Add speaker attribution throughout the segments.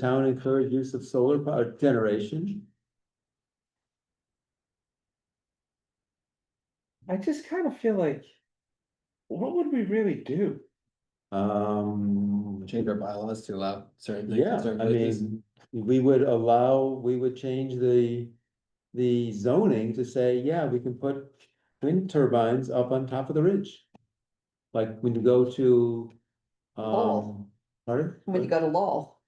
Speaker 1: Town encourage use of solar power generation.
Speaker 2: I just kind of feel like. What would we really do?
Speaker 1: Um,
Speaker 3: change our bylaws to allow certain things. in
Speaker 1: yeah,
Speaker 3: certain
Speaker 1: I
Speaker 3: places.
Speaker 1: mean, we would allow, we would change the. The zoning to say, yeah, we can put wind turbines up on top of the ridge. Like when you go to,
Speaker 4: Oh.
Speaker 1: um, pardon?
Speaker 4: When you go to Lowell,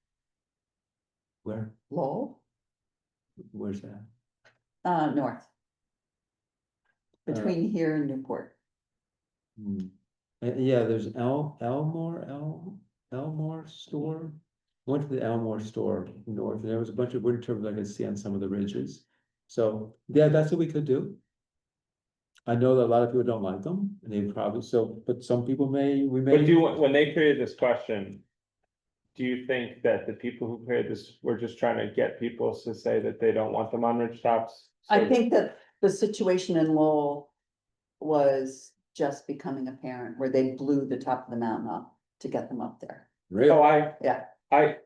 Speaker 1: Where,
Speaker 4: Lowell,
Speaker 1: where's that?
Speaker 4: uh, north.
Speaker 1: Uh,
Speaker 4: Between here and Newport.
Speaker 1: Hmm. Uh, yeah, there's El, Elmore, El, Elmore store. Went to the Elmore store north, and there was a bunch of wind turbines I could see on some of the ridges. So, yeah, that's what we could do. I know that a lot of people don't like them, and they probably, so, but some people may, we may.
Speaker 2: But do, you want- when they created this question. Do you think that the people who created this were just trying to get people to say that they don't want them on ridge tops?
Speaker 4: I
Speaker 2: So-
Speaker 4: think that the situation in Lowell was just becoming apparent, where they blew the top of the mountain up to get them up there.
Speaker 1: Really?
Speaker 2: Oh, I.
Speaker 4: Yeah.
Speaker 2: I.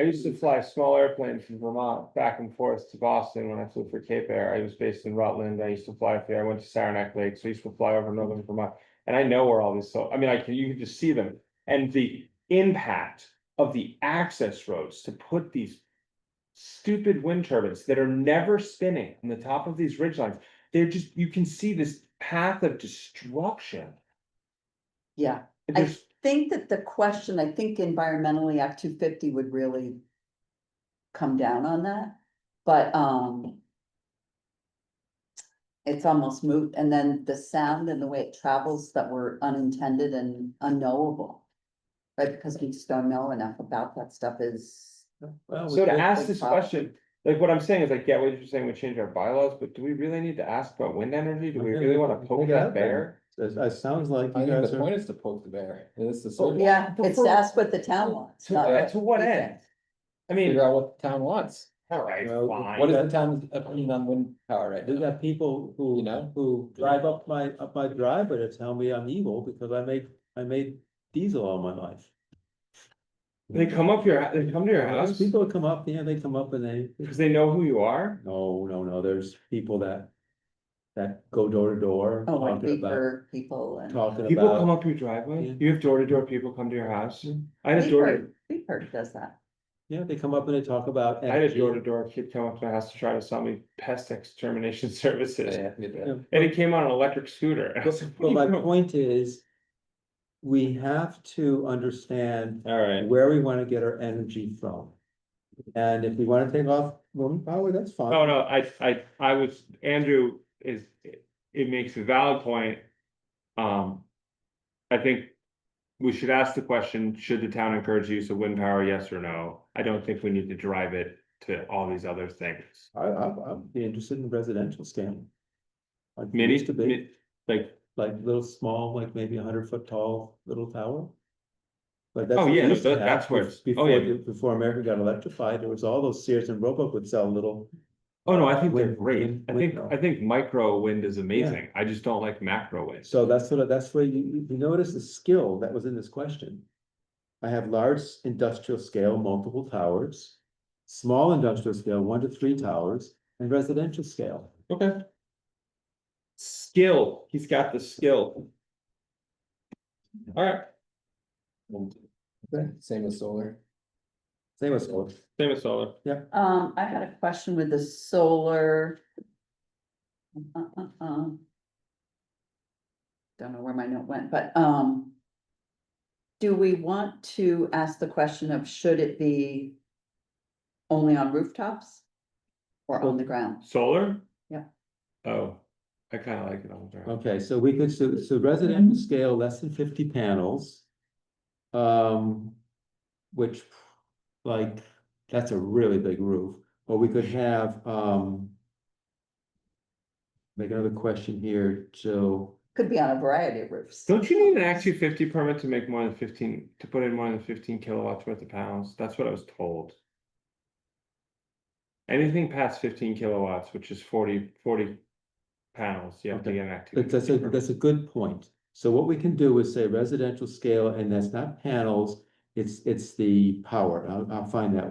Speaker 2: I used to fly small airplanes from Vermont back and forth to Boston when I flew for Cape Air. I was based in Rutland. I used to fly up there. I went to Saranac Lake, so I used to fly over northern Vermont. And I know where all these, so, I mean, I can, you can just see them. And the impact of the access roads to put these. Stupid wind turbines that are never spinning on the top of these ridge lines. They're just, you can see this path of destruction.
Speaker 4: Yeah, I-
Speaker 2: There's,
Speaker 4: think that the question, I think environmentally Act two fifty would really come down on that, but, um, it's almost moot, and then the sound and the way it travels that were unintended and unknowable. Right, because we just don't know enough about that stuff is,
Speaker 1: Well, we
Speaker 2: So to
Speaker 1: could-
Speaker 2: ask
Speaker 4: big
Speaker 2: this
Speaker 4: problem.
Speaker 2: question, like what I'm saying is like, yeah, what you're saying, we change our bylaws, but do we really need to ask about wind energy? Do we
Speaker 1: Okay,
Speaker 2: really wanna
Speaker 1: we can
Speaker 2: poke
Speaker 1: figure it
Speaker 2: that
Speaker 1: out then.
Speaker 2: bear?
Speaker 1: It, it sounds like
Speaker 3: I
Speaker 1: you
Speaker 3: think
Speaker 1: guys
Speaker 3: the
Speaker 1: are, Oh,
Speaker 3: point is to poke the bear, and it's to sort of
Speaker 4: yeah,
Speaker 2: the
Speaker 4: it's
Speaker 2: fir-
Speaker 4: that's what the town wants.
Speaker 2: To,
Speaker 4: not
Speaker 2: uh, to what
Speaker 4: we
Speaker 2: end?
Speaker 4: think.
Speaker 2: I mean,
Speaker 3: figure out what the town wants.
Speaker 2: alright,
Speaker 1: Well,
Speaker 3: What
Speaker 2: fine.
Speaker 3: is the town's opinion on wind power right
Speaker 1: we
Speaker 3: now?
Speaker 1: got people who,
Speaker 3: You know?
Speaker 1: who drive up my, up my driveway to tell me I'm evil because I make, I made diesel all my life.
Speaker 2: They come up your, they come to your
Speaker 1: Those
Speaker 2: house
Speaker 1: people come up, yeah, they come up and they,
Speaker 2: because they know who you are?
Speaker 1: no, no, no, there's people that. That go door to door,
Speaker 4: Oh, like
Speaker 1: talking about,
Speaker 4: paper people and.
Speaker 1: talking
Speaker 2: People come
Speaker 1: about,
Speaker 2: up your driveway?
Speaker 1: Yeah.
Speaker 2: You have door to door people come to your house?
Speaker 1: Yeah.
Speaker 2: I had a door, to
Speaker 4: Beeper- Beeper does that.
Speaker 1: yeah, they come up and they talk about.
Speaker 2: I had a
Speaker 1: energy.
Speaker 2: door to door kid come up to my house to try to sell me pest extermination services.
Speaker 3: Yeah, we did.
Speaker 1: Yeah.
Speaker 2: And he came on an electric scooter. and I was
Speaker 1: But but
Speaker 2: like, what
Speaker 1: my
Speaker 2: are you doing?
Speaker 1: point is. We have to understand
Speaker 2: Alright,
Speaker 1: where we wanna get our energy from. And if we wanna take off woman power, that's fine.
Speaker 2: Oh, no, I, I, I was, Andrew is, it makes a valid point. Um, I think we should ask the question, should the town encourage use of wind power, yes or no? I don't think we need to drive it to all these other things.
Speaker 1: I, I, I'd be interested in residential scanning. Like it
Speaker 2: Mini,
Speaker 1: used to be,
Speaker 2: mi- like,
Speaker 1: like little small, like maybe a hundred foot tall little tower. But that's.
Speaker 2: Oh,
Speaker 1: what we
Speaker 2: yeah,
Speaker 1: used to
Speaker 2: that-
Speaker 1: have
Speaker 2: that's where
Speaker 1: bef-
Speaker 2: it's- oh,
Speaker 1: Before,
Speaker 2: yeah.
Speaker 1: the- before America got electrified, there was all those Sears and Roebuck would sell little,
Speaker 2: oh, no, I think they're
Speaker 1: Wind-
Speaker 2: great.
Speaker 1: wind-
Speaker 2: I
Speaker 1: wind
Speaker 2: think,
Speaker 1: power.
Speaker 2: I think micro wind is amazing. I just don't like macro wind.
Speaker 1: so that's sort of, that's where you, you- you notice the skill that was in this question. I have large industrial scale, multiple towers, small industrial scale, one to three towers, and residential scale.
Speaker 2: Okay. Skill, he's got the skill. All right,
Speaker 1: Okay.
Speaker 3: Same with solar.
Speaker 1: Same as solar.
Speaker 2: same as solar.
Speaker 4: Um, I had a question with the solar. Uh, uh, uh. Don't know where my note went, but, um. Do we want to ask the question of should it be only on rooftops? Or on the ground?
Speaker 2: Solar?
Speaker 4: Yeah.
Speaker 2: Oh, I kinda like it on the ground.
Speaker 1: Okay, so we could, so, so residential scale, less than fifty panels. Um, which, like, that's a really big roof, or we could have, um. Make another question here, so,
Speaker 4: Could be on a variety of roofs.
Speaker 2: Don't you need an Act two fifty permit to make more than fifteen, to put in more than fifteen kilowatts worth of panels? That's what I was told. Anything past fifteen kilowatts, which is 40 40 panels, you have to
Speaker 1: Okay.
Speaker 2: get an Act two
Speaker 1: but that's a,
Speaker 2: fifty permit.
Speaker 1: that's a good point. So what we can do is say residential scale, and that's not panels, it's, it's the power, I'll, I'll find that